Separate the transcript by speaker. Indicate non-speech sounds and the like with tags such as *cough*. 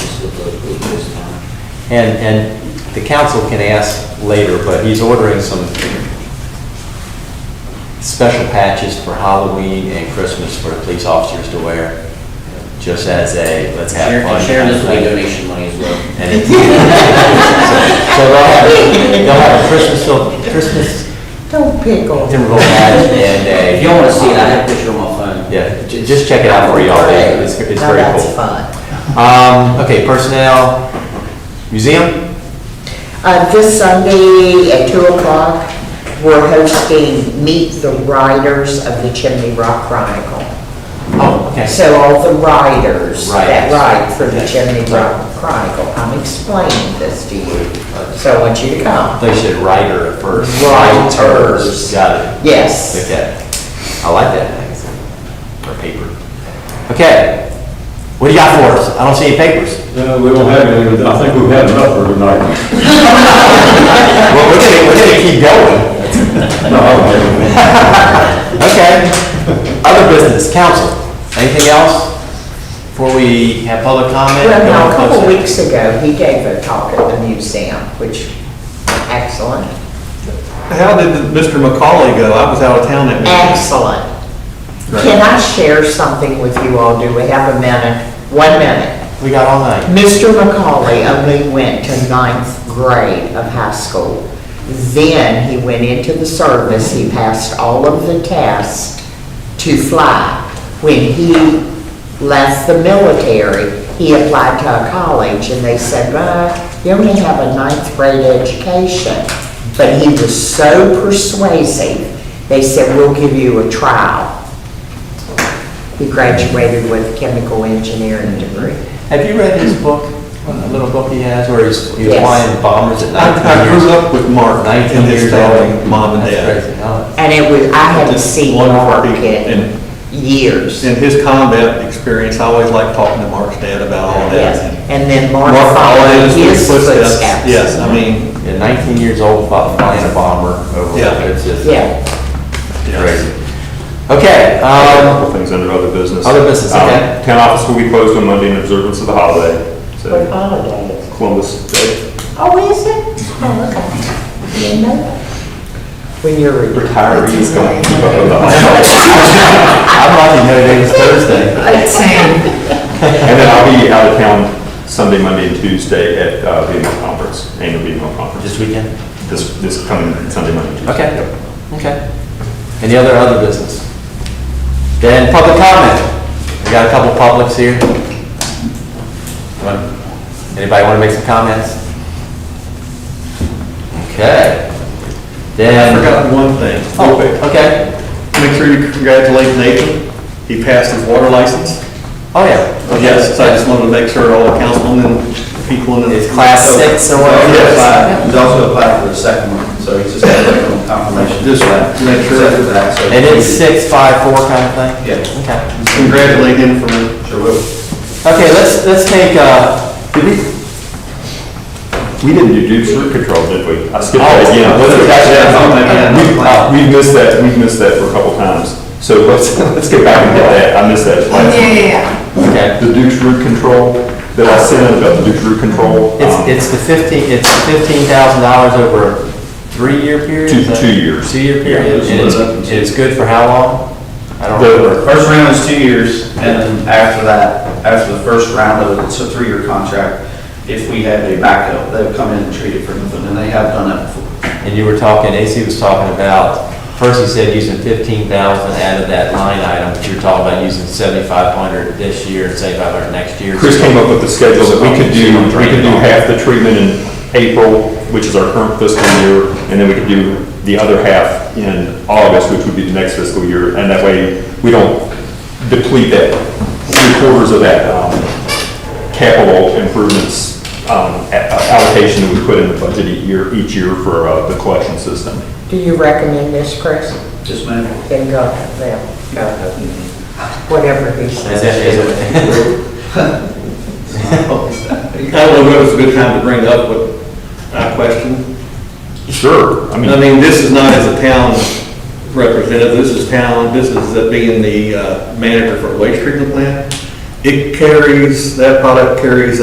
Speaker 1: of the this time. And, and the council can ask later, but he's ordering some special patches for Halloween and Christmas for the police officers to wear, just as a, let's have
Speaker 2: Sharon,
Speaker 1: fun.
Speaker 2: and Sharon
Speaker 1: kind of
Speaker 2: is my
Speaker 1: thing.
Speaker 2: donation money as well.
Speaker 1: And it's- So *laughs* so they'll have, they'll have a Christmas, fil- Christmas
Speaker 3: Don't pick on me.
Speaker 1: Timberville patch and a.
Speaker 2: If you want to see it, I have a picture on my phone.
Speaker 1: Yeah, ju- just check it out for y'all, it's, it's
Speaker 3: Now
Speaker 1: very
Speaker 3: that's
Speaker 1: cool.
Speaker 3: fun.
Speaker 1: Um, okay, personnel, museum,
Speaker 3: Uh, This Sunday at 2 o'clock, we're hosting Meet the Riders of the Chimney Rock Chronicle.
Speaker 1: Oh, okay.
Speaker 3: So all the riders that
Speaker 1: Riders,
Speaker 3: ride for the
Speaker 1: okay.
Speaker 3: Chimney Rock Chronicle, I'm explaining this to you, so I want you to come.
Speaker 1: they should writer at first.
Speaker 3: Writers.
Speaker 1: Got it.
Speaker 3: Yes.
Speaker 1: Okay, I like that magazine, or paper. Okay, what do you got for us? I don't see any papers.
Speaker 4: No, we don't have any, but I think we've had enough for tonight.
Speaker 1: Well, we're gonna, we're gonna keep going.
Speaker 4: No, I don't have any.
Speaker 1: Okay, other business, council, anything else? Before we have public comment?
Speaker 3: Well,
Speaker 1: go on
Speaker 3: now, a couple
Speaker 1: close
Speaker 3: weeks ago, he gave a talk at the museum, which, excellent,
Speaker 5: How did Mr. McCauley go? I was out of town that meeting.
Speaker 3: excellent.
Speaker 5: Right.
Speaker 3: Can I share something with you all? Do we have a minute? One minute.
Speaker 1: We got all night.
Speaker 3: Mr. McCauley only went to ninth grade of high school. Then he went into the service, he passed all of the tests to fly. When he left the military, he applied to a college and they said, "Well, you only have a ninth grade education." But he was so persuasive, they said, "We'll give you a trial." He graduated with a chemical engineering degree.
Speaker 1: Have you read his book, a little book he has, where he's, he's
Speaker 3: Yes.
Speaker 1: flying bombers at
Speaker 5: I I
Speaker 1: nineteen
Speaker 5: grew
Speaker 1: years?
Speaker 5: up with Mark
Speaker 1: Nineteen
Speaker 5: and his
Speaker 1: years
Speaker 5: family,
Speaker 1: old.
Speaker 5: mom and
Speaker 1: That's
Speaker 5: dad.
Speaker 1: crazy, huh?
Speaker 3: And it was, I hadn't
Speaker 5: Just
Speaker 3: seen
Speaker 5: wonderful
Speaker 3: Mark
Speaker 5: people,
Speaker 3: in
Speaker 5: and-
Speaker 3: years.
Speaker 5: And his combat experience, I always liked talking to Mark's dad about all
Speaker 3: Yes,
Speaker 5: that.
Speaker 3: and then Mark
Speaker 5: Mark followed in
Speaker 3: followed
Speaker 5: his
Speaker 3: his
Speaker 5: footsteps.
Speaker 3: footsteps.
Speaker 5: Yes, I mean,
Speaker 1: Yeah, nineteen years old, fly- flying a bomber over,
Speaker 5: Yeah.
Speaker 1: it's just
Speaker 3: Yeah,
Speaker 5: yes.
Speaker 1: crazy. Okay,
Speaker 6: A
Speaker 1: um,
Speaker 6: couple things under other business.
Speaker 1: Other business,
Speaker 6: Um,
Speaker 1: okay.
Speaker 6: Town office will be closed on Monday in observance of the holiday,
Speaker 3: what
Speaker 6: so
Speaker 3: holiday is it?
Speaker 6: Columbus Day.
Speaker 3: Oh, is it? Oh, okay. Didn't know that. When you're retired.
Speaker 1: retirees going.
Speaker 6: Keep up with *laughs* the holiday.
Speaker 1: I'm lucky no day was Thursday.
Speaker 3: *laughs* Same.
Speaker 6: And then I'll be out of town Sunday, Monday, and Tuesday at uh, BMO conference, annual BMO conference,
Speaker 1: This weekend?
Speaker 6: this, this coming Sunday, Monday, Tuesday.
Speaker 1: Okay,
Speaker 6: Yep.
Speaker 1: okay. Any other, other business? Then public comment. We got a couple publics here. Wanna- Anybody want to make some comments? Okay.
Speaker 5: I
Speaker 1: Then.
Speaker 5: forgot one thing, real
Speaker 1: Oh,
Speaker 5: quick.
Speaker 1: okay.
Speaker 5: Make sure you congratulate Nathan. He passed his water license.
Speaker 1: Oh, yeah.
Speaker 5: Yes, so I just wanted to make sure all the councilmen and people in the. oh,
Speaker 1: It's class six or whatever.
Speaker 5: Yes.
Speaker 7: He's also applied for the second one, so he's just got to wait on confirmation.
Speaker 5: Just make sure.
Speaker 7: Second for that, so-
Speaker 1: And it's six, five, four kind of thing?
Speaker 7: Yeah.
Speaker 1: Okay.
Speaker 5: Congratulate him for
Speaker 7: Sure will.
Speaker 1: Okay, let's, let's take, uh, did we,
Speaker 6: We didn't do Duke's root control, did we? I skipped
Speaker 1: Oh,
Speaker 6: that again.
Speaker 1: was it- that's- that's on my plan.
Speaker 6: We- uh, We've missed that, we've missed that for a couple times. So let's, *laughs* let's go back and get that. I missed that. last-
Speaker 1: okay.
Speaker 6: The Duke's root control, that I sent about the Duke's root control.
Speaker 1: It's,
Speaker 6: um,
Speaker 1: it's the fifteen, it's fifteen thousand dollars over a three-year period?
Speaker 6: Two-
Speaker 1: is that-
Speaker 6: two years.
Speaker 1: Two-year
Speaker 6: Yeah,
Speaker 1: period,
Speaker 7: it's
Speaker 1: and it's,
Speaker 7: split up into-
Speaker 1: it's good for how long? I don't
Speaker 6: The-
Speaker 1: remember.
Speaker 7: First round is two years, and then after that, after the first round of it, it's a three-year contract. If we have a backup, they would come in and treat it for nothing, and they have done that before.
Speaker 1: And you were talking, AC was talking about, first he said using fifteen thousand out of that line item, but you're talking about using seventy-five hundred this year and seventy-five hundred next year.
Speaker 6: Chris came up with the schedule that we could do, we could do half the treatment in April, which is our current fiscal year, and then we could do the other half in August, which would be the next fiscal year, and that way, we don't deplete that, three quarters of that, um, capital improvements, um, a- a- allocation that we put in the budget each year, each year for, uh, the collection system.
Speaker 3: Do you recommend this, Chris?
Speaker 7: Just man,
Speaker 3: Then go, then go. Whatever he
Speaker 1: Is
Speaker 3: says.
Speaker 1: that- is *laughs* it-
Speaker 5: I don't know if it's a good time to bring up what I question.
Speaker 6: Sure, I mean.
Speaker 5: I mean, this is not as a town representative, this is town, this is the- being the uh, manager for a waste treatment plant. It carries, that product carries